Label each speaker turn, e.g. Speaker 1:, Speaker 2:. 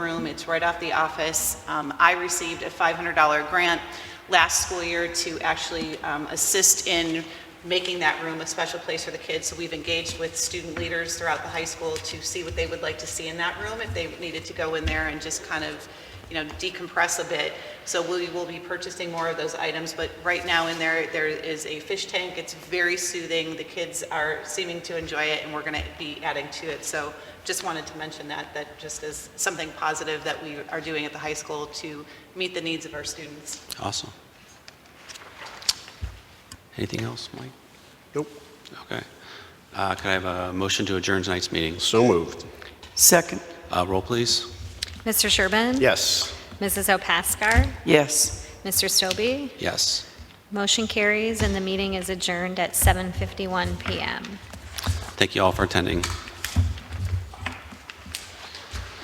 Speaker 1: home. It's right off the office. Um, I received a $500 grant last school year to actually um, assist in making that room a special place for the kids. So we've engaged with student leaders throughout the high school to see what they would like to see in that room, if they needed to go in there and just kind of, you know, decompress a bit. So we will be purchasing more of those items, but right now in there, there is a fish tank. It's very soothing. The kids are seeming to enjoy it, and we're going to be adding to it. So just wanted to mention that, that just is something positive that we are doing at the high school to meet the needs of our students.
Speaker 2: Awesome. Anything else, Mike?
Speaker 3: Nope.
Speaker 2: Okay. Uh, Could I have a motion to adjourn tonight's meetings?
Speaker 3: So moved.
Speaker 4: Second,
Speaker 2: Uh, Roll, please.
Speaker 5: Mr. Sherman?
Speaker 3: Yes.
Speaker 5: Mrs. Opaskar?
Speaker 4: yes.
Speaker 5: Mr. Stobie?
Speaker 2: Yes.
Speaker 5: Motion carries, and the meeting is adjourned at 7:51 PM.
Speaker 2: Thank you all for attending.